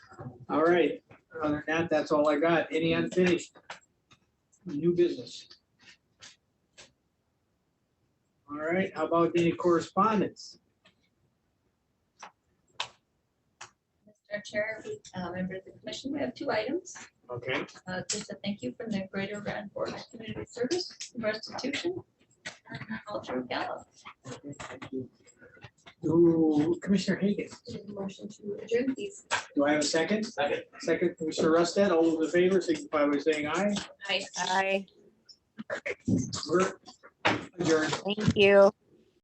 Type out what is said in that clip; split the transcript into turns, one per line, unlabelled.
All right, other than that, that's all I got. Any unfinished? New business? All right, how about any correspondence?
Mr. Chair, uh, members of the commission, we have two items.
Okay,
Uh, Just a thank you from the Greater Radford Community Service Restitution and Culture Gala.
do Commissioner Hagan,
Motion to adjourn, please.
do I have a second?
Second.
Second, Commissioner Rustad, all those in favor, signify by saying aye.
Aye.
Aye,
We're adjourned.
thank you.